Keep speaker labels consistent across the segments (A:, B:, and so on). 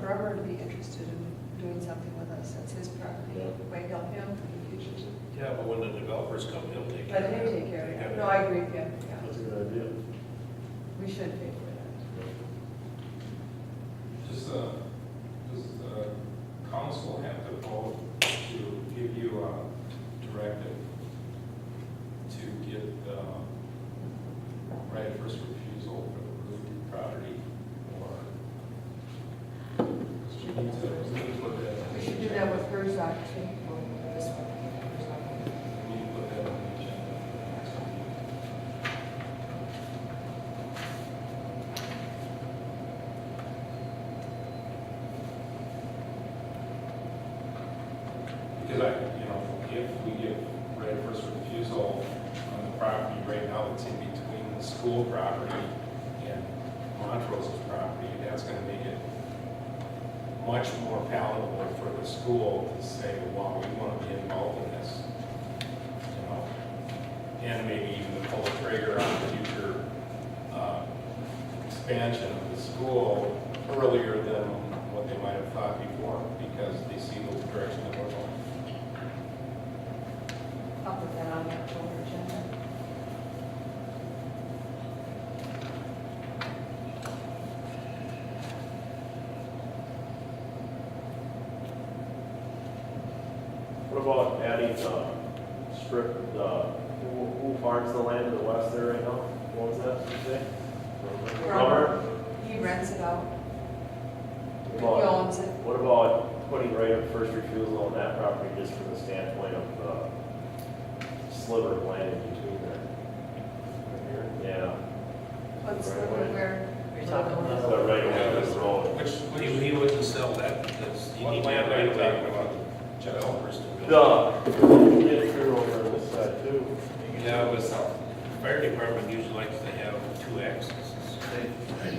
A: Bremer to be interested in doing something with us. That's his property.
B: Yeah.
A: Might help him in the future.
C: Yeah, but when the developers come, he'll take care
A: Let
C: of it.
A: him take care of it. No, I agree with you. Yeah.
B: That's a good idea.
A: We should pay for
D: Does, uh, does the council have to vote to give you a directive to get, uh, right of first refusal for the roofed property or? Because you need to, we need to put
A: that.
D: that,
A: We should do that with Herzog too. or this one.
D: we need to put that on the agenda. for next meeting. Because I, you know, if we give right of first refusal on the property right now that's in between the school property and Montrose's property, that's gonna make it much more palatable for the school to say, wow, we wanna be involved in this. You know, and maybe even to pull the trigger on the future, uh, expansion of the school earlier than what they might have thought before, because they see the direction that we're going.
A: I'll put that on the October agenda.
B: What about adding the strip, the, who who farms the land to the west there right now? What was that, you say?
A: Farmer. He rents it out. He
B: Well-
A: owns it.
B: What about putting right of first refusal on that property just from the standpoint of the sliver of land in between there? Yeah,
A: What's the, where?
E: You're talking about-
B: the right of way of the road.
D: Which,
C: He, he wouldn't sell that because you
D: What
C: need to
D: land
C: have
D: are
C: right
D: you
C: of way.
D: talking about? Developers to build?
B: The, you get through over on this side too.
C: Yeah, but the fire department usually likes to have two accesses.
F: We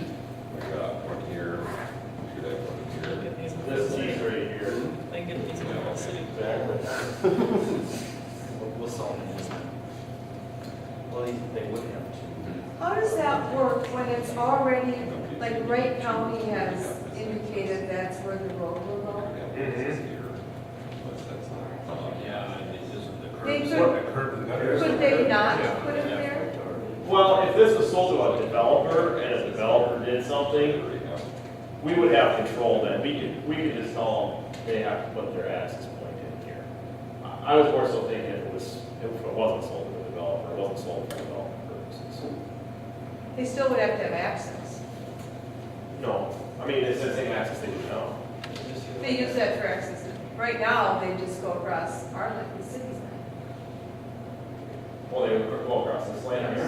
F: got one here, we got one here.
B: This piece right here.
E: They get these people in the city.
G: We'll, we'll solve it this time. Well, they they would have to.
A: How does that work when it's already, like Wright County has indicated that's where the road will go?
C: Yeah, and it isn't the
A: They
C: curb,
A: could-
C: the curb and gutter.
A: Could they not put it there?
B: Well, if this was sold to a developer and a developer did something, we would have control then. We could, we could just tell them they have to put their access point in here. I I was more so thinking if it was, if it wasn't sold to a developer, it wasn't sold for development purposes.
A: They still would have to have access.
B: No, I mean, it's the same access they do now.
A: They use that for access. Right now, they just go across our, like, the city's line.
B: Well, they would go across this land here.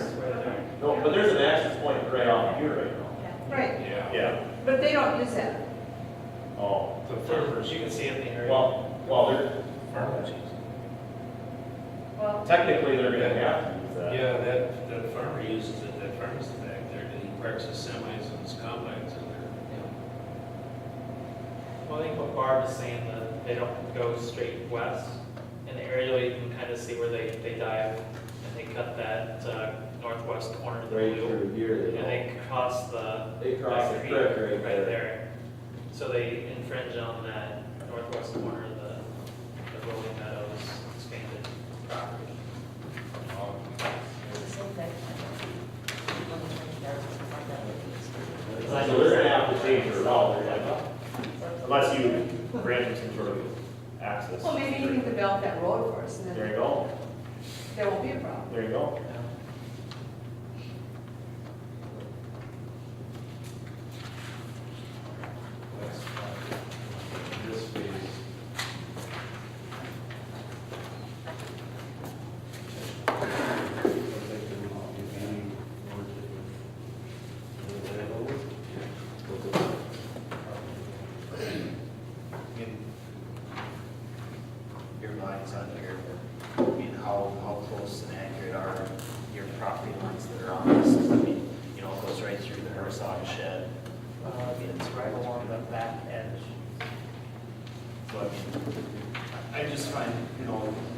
B: No, but there's an access point right off here right now.
A: Right,
C: Yeah.
B: Yeah,
A: but they don't use that.
B: oh,
C: The farmers, you can see in the area.
B: well, well, they're,
C: Farmers. use
A: Well,
B: technically, they're gonna have to use
C: it.
B: that.
C: Yeah, that, that farmer uses it, that farmer's back there, and he parks his semis and his combines in there.
E: Well, I think what Barb is saying, that they don't go straight west, and the aerial, you can kind of see where they, they dive, and they cut that uh, northwest corner of the
G: Right
E: blue.
G: through here,
E: And
G: they
E: they cross the.
G: They cross the
E: creek
G: creek right there.
E: there. So they infringe on that northwest corner of the, the Rolling Meadows expanded property.
B: So they're gonna have to change their route, they're like, unless you grant them some sort of access.
A: well, maybe you can develop that road for us, and
B: There you
A: then
B: go,
A: there won't be a problem.
B: there you go.
E: don't know.
D: That's fine. This phase.
G: Your lines on here, but, I mean, how, how close and accurate are your property lines that are on this? I mean, you know, it goes right through the Herzog shed. Uh, it's right along the back edge. So I mean, I I just find, you know,